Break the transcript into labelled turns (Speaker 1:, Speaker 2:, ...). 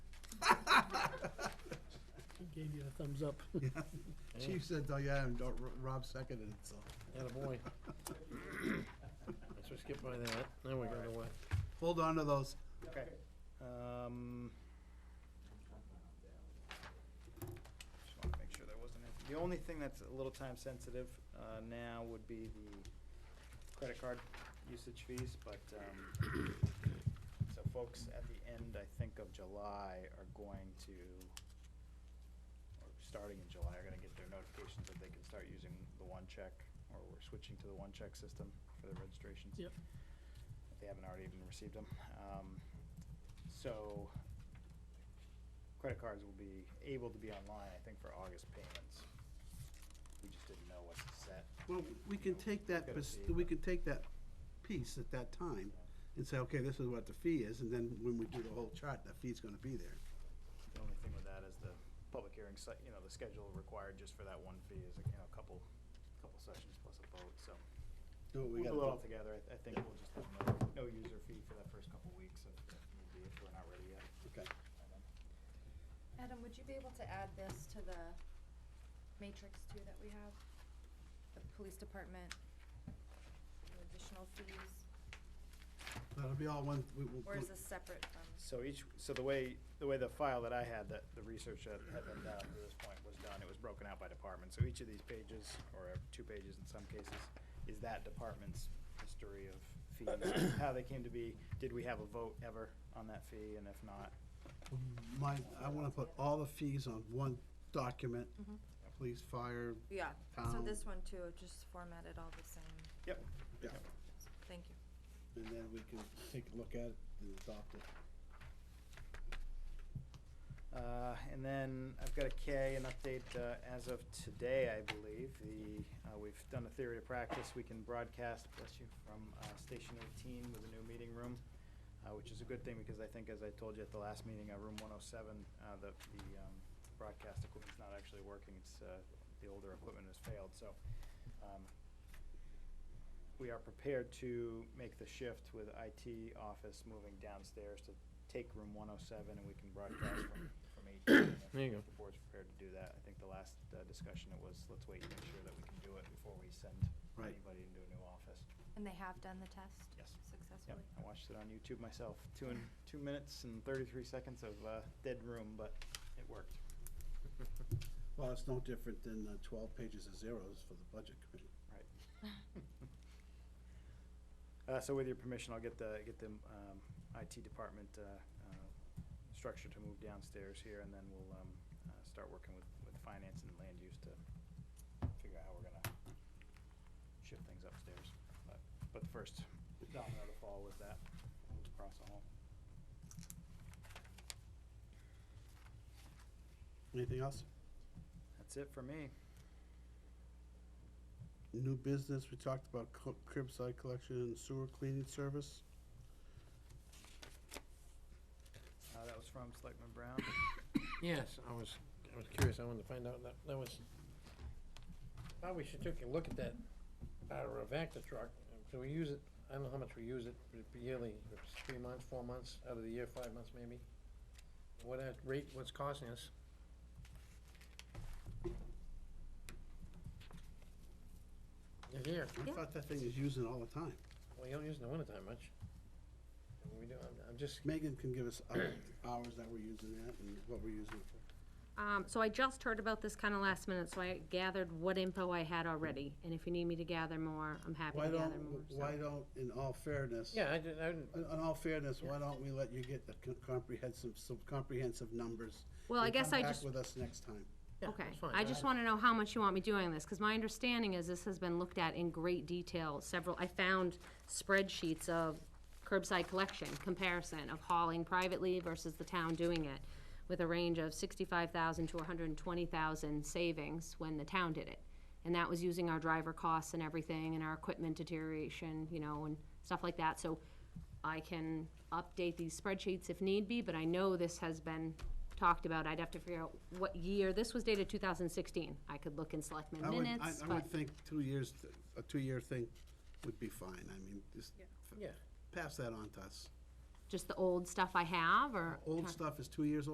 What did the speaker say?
Speaker 1: gave you a thumbs up.
Speaker 2: Chief said, oh yeah, and Ro- Rob seconded it, so.
Speaker 3: Attaboy. Let's just skip by that. Now we got away.
Speaker 2: Hold on to those.
Speaker 4: Okay. Um, Just want to make sure there wasn't anything. The only thing that's a little time sensitive uh, now would be the credit card usage fees, but, um, so folks at the end, I think, of July are going to, or starting in July, are going to get their notifications that they can start using the one check, or we're switching to the one check system for their registrations
Speaker 1: Yep.
Speaker 4: if they haven't already even received them. Um, So, credit cards will be able to be online, I think, for August payments. We just didn't know what's set.
Speaker 2: Well, we can take that,
Speaker 4: Gotta
Speaker 2: pers-
Speaker 4: see.
Speaker 2: we can take that piece at that time and say, okay, this is what the fee is, and then when we do the whole chart, that fee's gonna be there.
Speaker 4: The only thing with that is the public hearing, si- you know, the schedule required just for that one fee is, you know, a couple, couple sessions plus a vote, so.
Speaker 2: Do what we
Speaker 4: We'll
Speaker 2: gotta
Speaker 4: do it all
Speaker 2: do.
Speaker 4: together. I- I think we'll just have no, no user fee for that first couple weeks if, if need be, if we're not ready yet.
Speaker 2: Okay.
Speaker 5: Adam, would you be able to add this to the matrix too that we have? The police department, the additional fees,
Speaker 2: That'll be all one, we will.
Speaker 5: or is this separate from?
Speaker 4: So each, so the way, the way the file that I had, that the research that had been done up to this point was done, it was broken out by department. So each of these pages, or two pages in some cases, is that department's history of fees, how they came to be. Did we have a vote ever on that fee, and if not,
Speaker 2: My, I wanna put all the fees on one document, police, fire,
Speaker 5: Yeah, so
Speaker 2: Um,
Speaker 5: this one too, just formatted all the same.
Speaker 4: yep.
Speaker 2: yeah,
Speaker 5: Thank you.
Speaker 2: and then we can take a look at it and adopt it.
Speaker 4: Uh, And then I've got a K, an update uh, as of today, I believe. The, uh, we've done a theory to practice. We can broadcast, bless you, from uh, Station 18 with a new meeting room, uh, which is a good thing because I think, as I told you at the last meeting, uh, Room 107, uh, the the, um, broadcast equipment's not actually working. It's, uh, the older equipment has failed. So um, we are prepared to make the shift with IT office moving downstairs to take room one oh seven and we can broadcast from, from eighteen. if
Speaker 3: There you go.
Speaker 4: The board's prepared to do that. I think the last uh, discussion it was, let's wait and make sure that we can do it before we send
Speaker 2: Right.
Speaker 4: anybody into a new office.
Speaker 5: And they have done the test?
Speaker 4: Yes. Yep, I
Speaker 5: Successfully?
Speaker 4: watched it on YouTube myself. Two and, two minutes and thirty-three seconds of, uh, dead room, but it worked.
Speaker 2: Well, it's no different than uh, twelve pages of zeros for the budget committee.
Speaker 4: Right. Uh, so with your permission, I'll get the, get the, um, IT department, uh, uh, structure to move downstairs here, and then we'll, um, uh, start working with, with finance and land use to figure out how we're gonna shift things upstairs. But, but the first domino to fall was that, move across the hall.
Speaker 2: Anything else?
Speaker 4: That's it for me.
Speaker 2: New business, we talked about co- curbside collection and sewer cleaning service.
Speaker 4: Uh, that was from Selectman Brown.
Speaker 3: Yes, I was, I was curious. I wanted to find out that, that was, probably should take a look at that power of Vector truck. Do we use it? I don't know how much we use it, but it'd be yearly, it's three months, four months, out of the year, five months maybe. What that rate, what's costing us? It's here.
Speaker 2: I
Speaker 5: Yeah.
Speaker 2: thought that thing is using all the time.
Speaker 3: Well, you don't use it in the wintertime much. We do, I'm, I'm just,
Speaker 2: Megan can give us our hours that we're using that and what we're using it for.
Speaker 6: Um, so I just heard about this kind of last minute, so I gathered what info I had already, and if you need me to gather more, I'm happy
Speaker 2: Why
Speaker 6: to gather more.
Speaker 2: don't,
Speaker 6: so.
Speaker 2: why don't, in all fairness,
Speaker 3: yeah, I did, I didn't,
Speaker 2: in in all fairness, why don't we let you get the co- comprehensive, some comprehensive numbers?
Speaker 6: Well, I
Speaker 2: and
Speaker 6: guess
Speaker 2: come
Speaker 6: I
Speaker 2: back
Speaker 6: just-
Speaker 2: with us next time.
Speaker 3: yeah,
Speaker 6: Okay,
Speaker 3: it's fine.
Speaker 6: I just wanna know how much you want me doing this, cause my understanding is this has been looked at in great detail, several, I found spreadsheets of curbside collection, comparison of hauling privately versus the town doing it, with a range of sixty-five thousand to hundred and twenty thousand savings when the town did it. And that was using our driver costs and everything, and our equipment deterioration, you know, and stuff like that, so I can update these spreadsheets if need be, but I know this has been talked about. I'd have to figure out what year. This was dated 2016. I could look in selectmen
Speaker 2: I would, I-
Speaker 6: minutes,
Speaker 2: I
Speaker 6: but
Speaker 2: would think two years, a two-year thing would be fine. I mean, just f-
Speaker 3: Yeah.
Speaker 2: pass that on to us.
Speaker 6: just the old stuff I have, or?
Speaker 2: Old stuff is two years old.